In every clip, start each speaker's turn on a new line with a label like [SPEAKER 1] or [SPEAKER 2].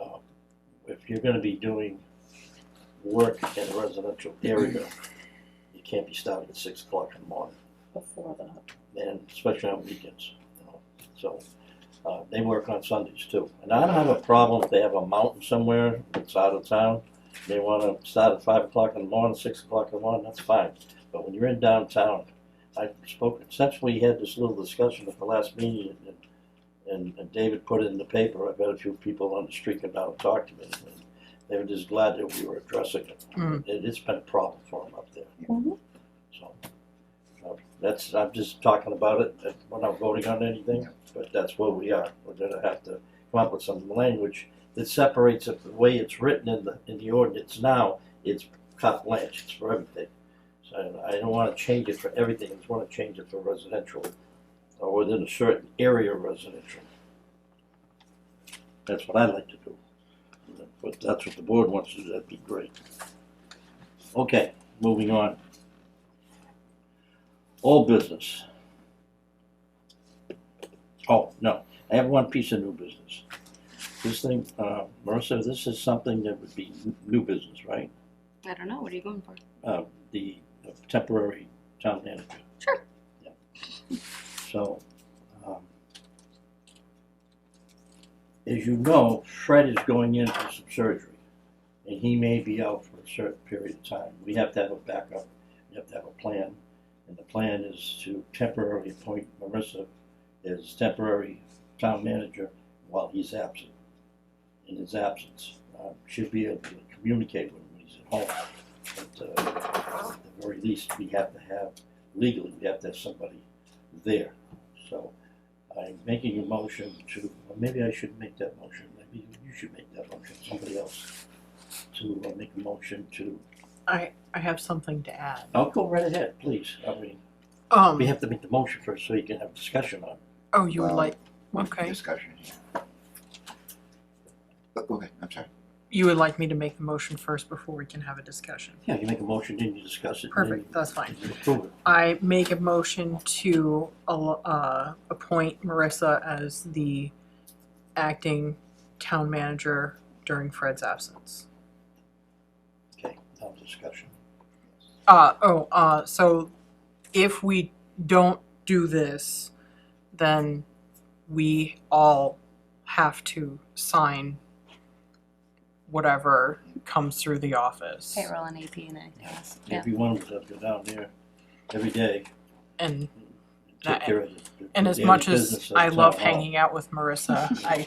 [SPEAKER 1] Um, if you're gonna be doing work in a residential area, you can't be starting at six o'clock in the morning,
[SPEAKER 2] before that.
[SPEAKER 1] and especially on weekends, you know, so. Uh, they work on Sundays too, and I don't have a problem if they have a mountain somewhere that's out of town, they wanna start at five o'clock in the morning, six o'clock in the morning, that's fine. But when you're in downtown, I spoke, since we had this little discussion at the last meeting, and and, and David put it in the paper, I bet a few people on the street come down and talk to me. and They were just glad that we were addressing it.
[SPEAKER 3] Mm.
[SPEAKER 1] It, it's been a problem for them up there.
[SPEAKER 2] Mhm.
[SPEAKER 1] So, uh, that's, I'm just talking about it, that we're not voting on anything, but that's where we are. We're gonna have to come up with some language that separates it, the way it's written in the, in the ordinance now, it's carte blanche, it's for everything. So I don't wanna change it for everything, I just wanna change it for residential, or within a certain area of residential. That's what I'd like to do. But that's what the board wants to do, that'd be great. Okay, moving on. All business. Oh, no, I have one piece of new business. This thing, uh, Marissa, this is something that would be n- new business, right?
[SPEAKER 4] I don't know. What are you going for?
[SPEAKER 1] Uh, the temporary town manager.
[SPEAKER 4] Sure.
[SPEAKER 1] Yeah. So, um, as you know, Fred is going in for some surgery, and he may be out for a certain period of time. We have to have a backup, we have to have a plan, and the plan is to temporarily appoint Marissa as temporary town manager while he's absent. In his absence, uh, should be able to communicate with him when he's at home. But, uh, at the very least, we have to have, legally, we have to have somebody there. So I'm making a motion to, or maybe I should make that motion, maybe you should make that motion, somebody else. To uh, make a motion to,
[SPEAKER 3] I, I have something to add.
[SPEAKER 1] I'll go right ahead, please. I mean,
[SPEAKER 3] Um,
[SPEAKER 1] Oh, we have uh, to make the motion first so you can have discussion on it.
[SPEAKER 3] oh, you would
[SPEAKER 5] Um,
[SPEAKER 3] like,
[SPEAKER 5] with the
[SPEAKER 3] Okay.
[SPEAKER 5] Discussion here. But, okay, I'm sorry.
[SPEAKER 3] you would like me to make the motion first before we can have a discussion?
[SPEAKER 1] Yeah, you make a motion, then you discuss it. and then
[SPEAKER 3] Perfect, that's fine.
[SPEAKER 1] you Approve it.
[SPEAKER 3] I make a motion to, al- uh, appoint Marissa as the acting town manager during Fred's absence.
[SPEAKER 1] Okay, now discussion.
[SPEAKER 3] Uh, oh, uh, so if we don't do this, then we all have to sign whatever comes through the office.
[SPEAKER 4] Payroll and AP and anything else. Yeah.
[SPEAKER 1] Every one of us have to go down there every day
[SPEAKER 3] And,
[SPEAKER 1] and take care of it.
[SPEAKER 3] and as
[SPEAKER 1] Daily
[SPEAKER 3] much as
[SPEAKER 1] business of
[SPEAKER 3] I
[SPEAKER 1] town
[SPEAKER 3] love
[SPEAKER 1] hall.
[SPEAKER 3] hanging out with Marissa, I,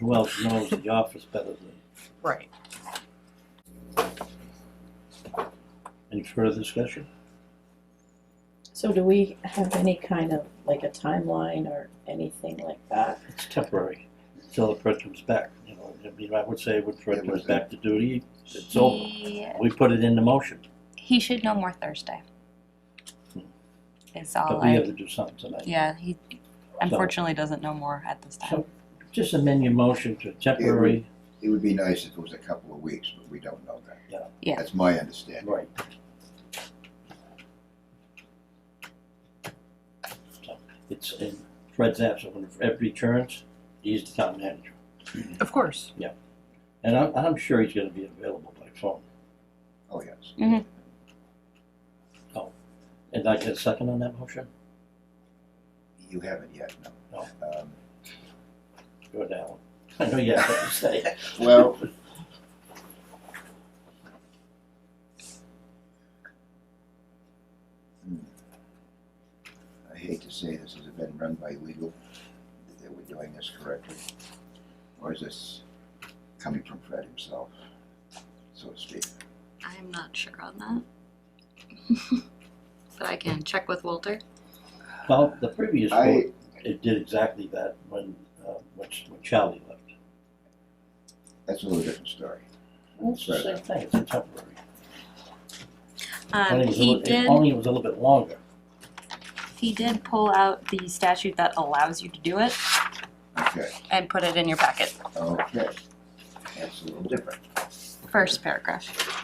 [SPEAKER 1] Who else knows the office better than,
[SPEAKER 3] right.
[SPEAKER 1] any further discussion?
[SPEAKER 2] So do we have any kind of, like a timeline or anything like that?
[SPEAKER 1] It's temporary, until the person comes back, you know, I mean, I would say when Fred
[SPEAKER 5] Yeah,
[SPEAKER 1] comes
[SPEAKER 5] but-
[SPEAKER 1] back to duty, it's over.
[SPEAKER 4] He,
[SPEAKER 1] We put it in the motion,
[SPEAKER 4] he should know more Thursday. It's all
[SPEAKER 1] but we have
[SPEAKER 4] like,
[SPEAKER 1] to do something tonight.
[SPEAKER 4] yeah, he unfortunately doesn't know more at this time.
[SPEAKER 1] So, just amend your motion to temporary,
[SPEAKER 5] It would be nice if it was a couple of weeks, but we don't know that.
[SPEAKER 1] Yeah.
[SPEAKER 4] Yeah.
[SPEAKER 5] That's my understanding.
[SPEAKER 1] right. So, It's in Fred's absence, when Fred returns, he's the town manager.
[SPEAKER 3] Of course.
[SPEAKER 1] And I'm, I'm sure he's gonna be available by phone.
[SPEAKER 5] Oh, yes.
[SPEAKER 4] Mhm.
[SPEAKER 1] And I get a second on that motion?
[SPEAKER 5] You haven't yet, no. Um,
[SPEAKER 1] Go down. I know you have what to say.
[SPEAKER 5] Well, Hmm. I hate to say this, has it been run by legal, that we're doing this correctly? Or is this coming from Fred himself, so to speak?
[SPEAKER 4] I'm not sure on that. but I can check with Walter.
[SPEAKER 1] Well, the previous
[SPEAKER 5] I,
[SPEAKER 1] vote, it did exactly that when, uh, when when Charlie left.
[SPEAKER 5] that's a little different story.
[SPEAKER 1] It's the same thing, it's a temporary. Only
[SPEAKER 4] Um,
[SPEAKER 1] it was a
[SPEAKER 4] he
[SPEAKER 1] little- it-
[SPEAKER 4] did
[SPEAKER 1] Only it was a little bit longer.
[SPEAKER 4] he did pull out the statute that allows you to do it
[SPEAKER 5] Okay,
[SPEAKER 4] and put it in your packet.
[SPEAKER 5] okay. That's a little different.
[SPEAKER 4] First paragraph.